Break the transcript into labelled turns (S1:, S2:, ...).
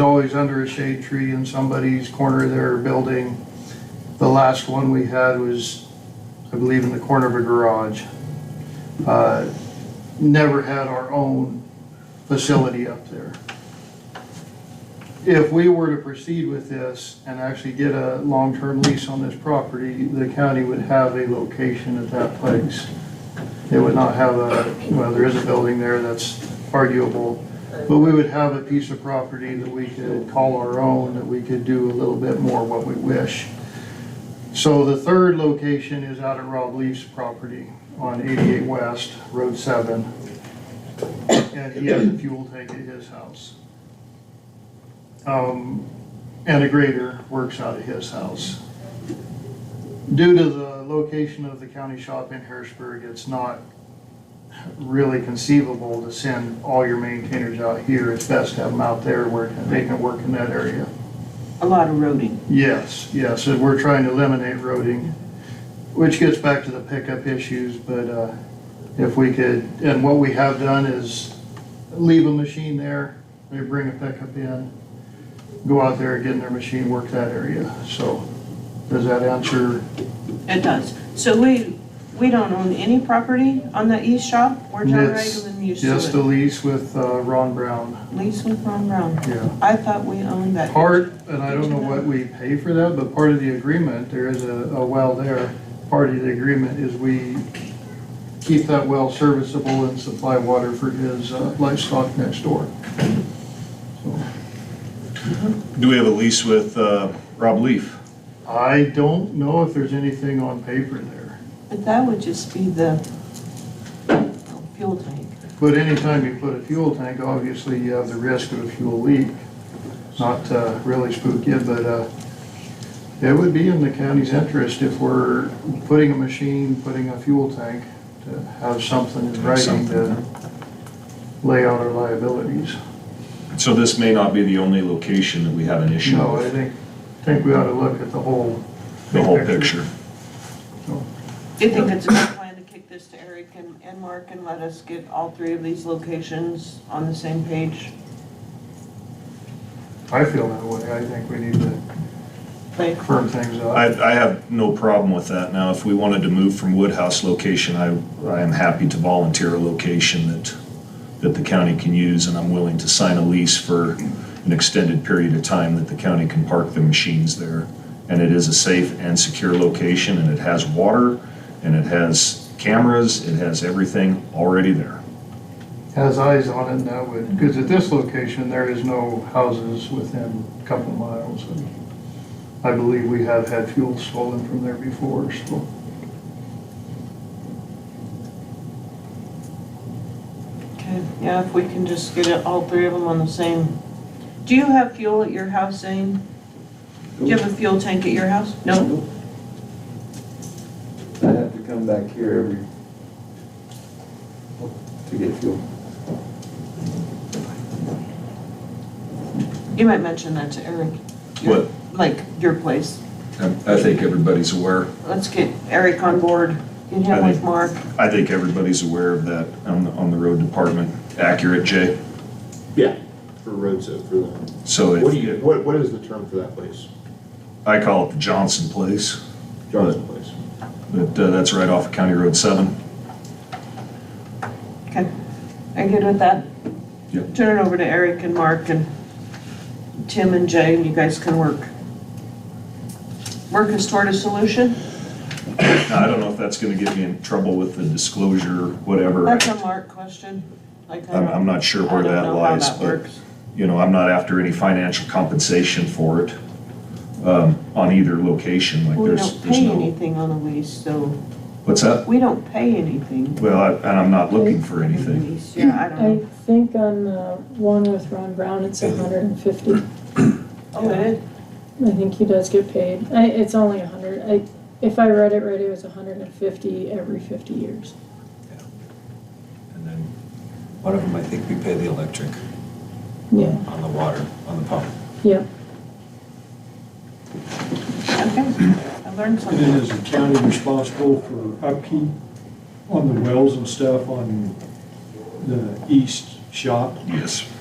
S1: always under a shade tree in somebody's corner of their building. The last one we had was, I believe, in the corner of a garage. Uh, Never had our own facility up there. If we were to proceed with this and actually get a long-term lease on this property, the county would have a location at that place. It would not have a, well, there is a building there that's arguable, but we would have a piece of property that we could call our own, that we could do a little bit more what we wish. So the third location is out at Rob Leaf's property on 88 West, Road 7. And he has a fuel tank at his house. Um, And a grader works out of his house. Due to the location of the county shop in Harrisburg, it's not really conceivable to send all your maintainers out here. It's best to have them out there where they can work in that area.
S2: a lot of roading.
S1: Yes, yes, and we're trying to eliminate roading, which gets back to the pickup issues, but uh, if we could, and what we have done is leave a machine there, they bring a pickup in, go out there, get in their machine, work that area. So does that answer?
S2: It does. So we, we don't own any property on the east shop. We're John
S1: Yes,
S2: Ragland used
S1: Yes, the
S2: to it.
S1: lease with uh, Ron Brown,
S2: Lease with Ron Brown.
S1: yeah.
S2: I thought we owned that.
S1: Part, and I don't know what we pay for that, but part of the agreement, there is a, a well there. Part of the agreement is we keep that well serviceable and supply water for his uh, livestock next door. So,
S3: Do we have a lease with uh, Rob Leaf?
S1: I don't know if there's anything on paper there,
S2: But that would just be the oh, fuel tank.
S1: but anytime you put a fuel tank, obviously you have the risk of a fuel leak. Not to really spook you, but, uh, it would be in the county's interest if we're putting a machine, putting a fuel tank, to have something in writing to lay out our liabilities.
S3: So this may not be the only location that we have an issue
S1: No, I
S3: with,
S1: think, I think we ought to look at the whole.
S3: the whole picture.
S2: Do you think it's a good plan to kick this to Eric and, and Mark and let us get all three of these locations on the same page?
S1: I feel that way. I think we need to
S2: Like,
S1: firm things up.
S3: I, I have no problem with that. Now, if we wanted to move from Woodhouse location, I, I am happy to volunteer a location that, that the county can use, and I'm willing to sign a lease for an extended period of time that the county can park the machines there. And it is a safe and secure location, and it has water, and it has cameras, it has everything already there.
S1: has eyes on it, and that would, because at this location, there is no houses within a couple miles. and I believe we have had fuel stolen from there before, so.
S2: okay, yeah, if we can just get it, all three of them on the same. Do you have fuel at your house, Zane? Do you have a fuel tank at your house? No?
S4: I have to come back here every, to get fuel.
S2: You might mention that to Eric. Your-
S3: What,
S2: Like, your place.
S3: I I think everybody's aware.
S2: Let's get Eric on board, get him
S3: I
S2: with
S3: think-
S2: Mark.
S3: I think everybody's aware of that on, the- on the road department. Accurate, Jay?
S5: Yeah. For roads, uh, for the,
S3: So
S5: what do you,
S3: if,
S5: what, what is the term for that place?
S3: I call it the Johnson Place,
S5: Johnson Place.
S3: but uh, that's right off of County Road 7.
S2: Okay, are you good with that?
S3: Yep.
S2: Turn it over to Eric and Mark and Tim and Jay, and you guys can work. Work us toward a solution?
S3: Now, I don't know if that's gonna get me in trouble with the disclosure, whatever.
S2: That's a Mark question. Like, I
S3: I'm,
S2: don't-
S3: I'm not sure
S2: I
S3: where
S2: don't
S3: that
S2: know how
S3: lies,
S2: that
S3: but,
S2: works.
S3: you know, I'm not after any financial compensation for it, um, on either location, like
S2: We
S3: there's,
S2: don't
S3: there's
S2: pay
S3: no.
S2: anything on the lease, so
S3: What's that?
S2: we don't pay anything.
S3: Well, I- and I'm not looking for
S2: on the
S3: anything.
S2: lease. Yeah, I don't
S6: I
S2: know.
S6: think on the one with Ron Brown, it's a hundred and fifty.
S2: Oh, it is?
S6: I think he does get paid. I, it's only a hundred. I, if I read it right, it was a hundred and fifty every fifty years.
S7: And then one of them, I think we pay the electric
S6: Yeah,
S7: on the water, on the pump.
S6: yeah.
S2: Okay, I learned
S8: And
S2: something.
S8: then is the county responsible for upkeep on the wells and stuff on the east shop?
S3: Yes,